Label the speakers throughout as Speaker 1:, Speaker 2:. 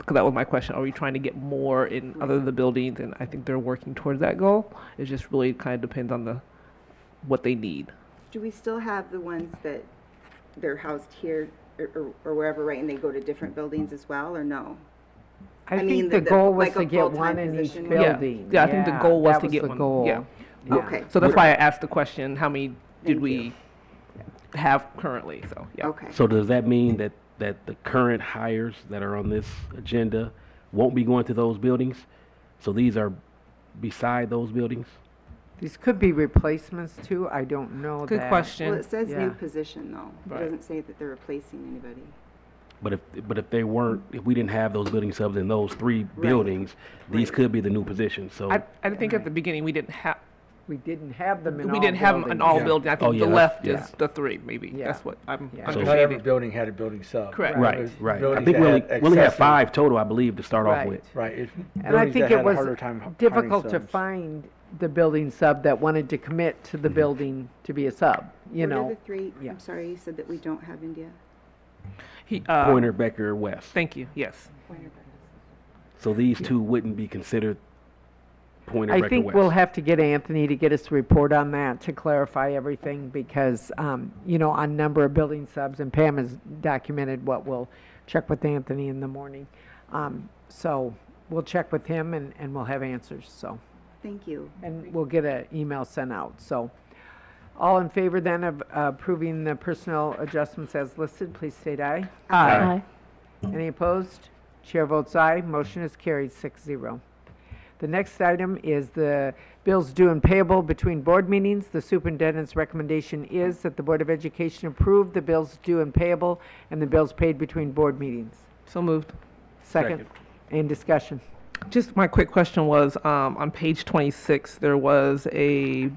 Speaker 1: because that was my question. Are we trying to get more in other than the buildings? And I think they're working towards that goal. It just really kind of depends on the what they need.
Speaker 2: Do we still have the ones that they're housed here or- or, or wherever, right, and they go to different buildings as well, or no? I
Speaker 3: I
Speaker 2: mean,
Speaker 3: think
Speaker 2: the-
Speaker 3: the
Speaker 2: the-
Speaker 3: goal was
Speaker 2: like a
Speaker 3: to get
Speaker 2: full-time
Speaker 3: one in each
Speaker 2: position. Yeah.
Speaker 3: building.
Speaker 1: Yeah, I think the goal was
Speaker 3: that
Speaker 1: to get
Speaker 3: the
Speaker 1: one.
Speaker 3: goal.
Speaker 1: Yeah.
Speaker 3: Yeah.
Speaker 2: Okay.
Speaker 1: So that's why I asked the question: How many did
Speaker 2: Thank
Speaker 1: we
Speaker 2: you.
Speaker 1: have currently? So yeah.
Speaker 2: Okay,
Speaker 4: So does that mean that, that the current hires that are on this agenda won't be going to those buildings? So these are beside those buildings?
Speaker 3: These could be replacements too, I don't know
Speaker 1: Good
Speaker 3: that.
Speaker 1: question.
Speaker 2: well, it says new
Speaker 3: Yeah.
Speaker 2: position, though. It
Speaker 1: Right.
Speaker 2: doesn't say that they're replacing anybody.
Speaker 4: But if, but if they weren't, if we didn't have those building subs in those three buildings, these could be the new positions, so.
Speaker 1: I, uh, I think at the beginning we didn't have
Speaker 3: We didn't have them in all
Speaker 1: we didn't have an all
Speaker 3: buildings.
Speaker 1: building. I think
Speaker 4: Oh, yeah,
Speaker 1: the
Speaker 4: that's-
Speaker 1: left
Speaker 4: yeah.
Speaker 1: is the three maybe.
Speaker 3: Yeah.
Speaker 1: That's what I'm
Speaker 3: Yeah. So-
Speaker 5: Not every
Speaker 1: understanding.
Speaker 5: building had a building sub.
Speaker 1: Correct.
Speaker 4: Right,
Speaker 5: There's
Speaker 4: right. I
Speaker 5: buildings
Speaker 4: think we
Speaker 5: that
Speaker 4: only,
Speaker 5: had
Speaker 4: we only had
Speaker 5: excessive-
Speaker 4: five total, I believe, to start off
Speaker 3: Right.
Speaker 4: with.
Speaker 5: Right. it's
Speaker 3: And I
Speaker 5: buildings
Speaker 3: think
Speaker 5: that
Speaker 3: it
Speaker 5: had a harder
Speaker 3: was
Speaker 5: time h- hiring
Speaker 3: difficult to
Speaker 5: subs.
Speaker 3: find the building sub that wanted to commit to the
Speaker 5: Mm-hmm.
Speaker 3: building to be a sub, you
Speaker 2: What are
Speaker 3: know?
Speaker 2: the three,
Speaker 3: yeah.
Speaker 2: I'm sorry, you said that we don't have India?
Speaker 1: He, uh,
Speaker 4: Pointer, Becker, West.
Speaker 1: Thank you. Yes.
Speaker 4: So these two wouldn't be considered Pointer,
Speaker 3: I
Speaker 4: Becker, West.
Speaker 3: think we'll have to get Anthony to get us a report on that to clarify everything because, um, you know, on number of building subs and Pam has documented what we'll check with Anthony in the morning. Um, so we'll check with him and, and we'll have answers, so.
Speaker 2: Thank you.
Speaker 3: And we'll get an email sent out, so. All in favor then of approving the personnel adjustments as listed, please state aye.
Speaker 4: Aye.
Speaker 3: Any opposed? Chair votes aye. Motion is carried, 6-0. The next item is the bills due and payable between board meetings. The superintendent's recommendation is that the Board of Education approve the bills due and payable and the bills paid between board meetings.
Speaker 1: So moved.
Speaker 3: Second. In discussion.
Speaker 1: Just my quick question was, um, on page twenty-six, there was a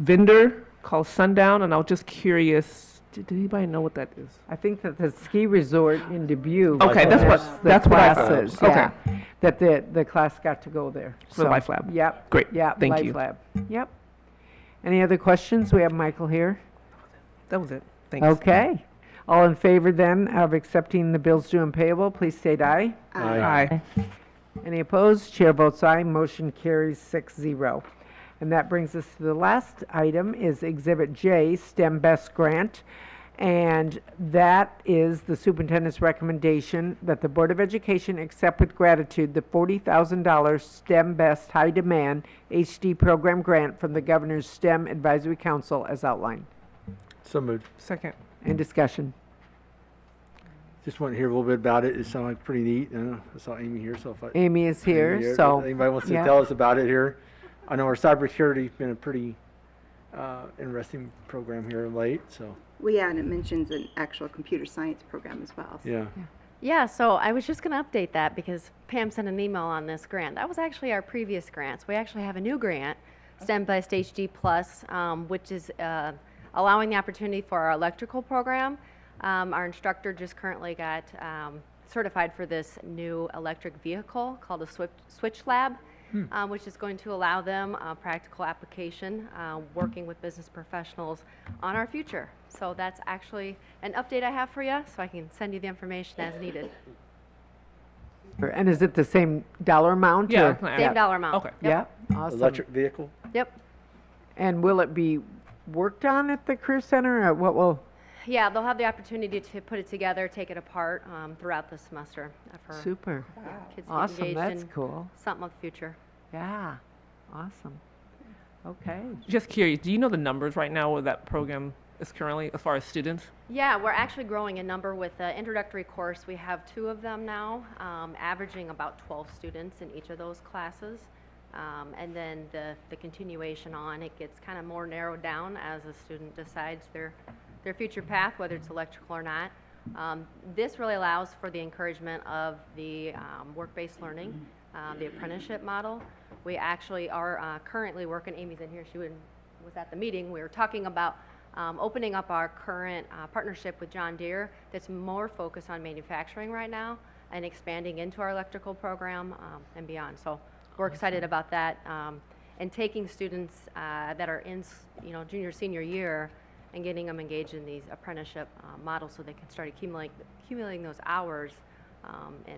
Speaker 1: vendor called Sundown, and I was just curious, did, did anybody know what that is?
Speaker 3: I think that the ski resort in Dubuque.
Speaker 1: Okay, that's what-
Speaker 3: has the
Speaker 1: that's what I thought.
Speaker 3: classes,
Speaker 1: Okay.
Speaker 3: yeah, That the, the class got to go there.
Speaker 1: For
Speaker 3: So,
Speaker 1: Life Lab.
Speaker 3: Yep.
Speaker 1: Great,
Speaker 3: Yep,
Speaker 1: thank
Speaker 3: Life
Speaker 1: you.
Speaker 3: Lab. Yep. Any other questions? We have Michael here.
Speaker 1: That was it. Thanks.
Speaker 3: Okay. All in favor then of accepting the bills due and payable, please state aye.
Speaker 2: Aye.
Speaker 1: Aye.
Speaker 3: Any opposed? Chair votes aye. Motion carries 6-0. And that brings us to the last item is Exhibit J, STEM Best Grant. And that is the superintendent's recommendation that the Board of Education accept with gratitude the forty thousand dollar STEM Best High Demand HD Program Grant from the Governor's STEM Advisory Council as outlined.
Speaker 5: So moved.
Speaker 1: Second.
Speaker 3: In discussion.
Speaker 5: Just want to hear a little bit about it. It sounded like pretty neat. I know I saw Amy here, so if I.
Speaker 3: Amy is
Speaker 5: Amy
Speaker 3: here, so.
Speaker 5: Anybody wants to
Speaker 3: yeah.
Speaker 5: tell us about it here? I know our cybersecurity's been a pretty, uh, interesting program here of late, so,
Speaker 2: Well, yeah, and it mentions an actual computer science program as well. so-
Speaker 5: yeah.
Speaker 6: Yeah, so I was just going to update that because Pam sent an email on this grant. That was actually our previous grants. We actually have a new grant, STEM Best HD Plus, um, which is uh, allowing the opportunity for our electrical program. Um, our instructor just currently got um, certified for this new electric vehicle called a Switch, switch Lab,
Speaker 3: Hmm.
Speaker 6: um, which is going to allow them uh, practical application, uh, working with business professionals on our future. So that's actually an update I have for you, so I can send you the information as needed.
Speaker 3: And is it the same dollar amount?
Speaker 1: Yeah,
Speaker 3: or-
Speaker 1: it's not-
Speaker 6: Same dollar amount.
Speaker 1: Okay.
Speaker 3: Yeah, awesome.
Speaker 5: Electric vehicle?
Speaker 6: Yep.
Speaker 3: And will it be worked on at the career center or what will,
Speaker 6: Yeah, they'll have the opportunity to put it together, take it apart um, throughout the semester uh, for
Speaker 3: super,
Speaker 6: yeah, kids to get
Speaker 3: awesome,
Speaker 6: engaged
Speaker 3: that's
Speaker 6: in
Speaker 3: cool.
Speaker 6: something of the future.
Speaker 3: Yeah, awesome. Okay,
Speaker 1: Just curious, do you know the numbers right now where that program is currently, as far as students?
Speaker 6: Yeah, we're actually growing in number with the introductory course. We have two of them now, um, averaging about 12 students in each of those classes. Um, and then the, the continuation on, it gets kind of more narrowed down as a student decides their, their future path, whether it's electrical or not. Um, this really allows for the encouragement of the um, work-based learning, um, the apprenticeship model. We actually are uh, currently working, Amy's in here, she would was at the meeting, we were talking about um, opening up our current uh, partnership with John Deere that's more focused on manufacturing right now and expanding into our electrical program um, and beyond. So we're excited about that um, and taking students uh, that are in, s- you know, junior, senior year and getting them engaged in these apprenticeship uh, models so they can start accumulating, accumulating those hours um, um, and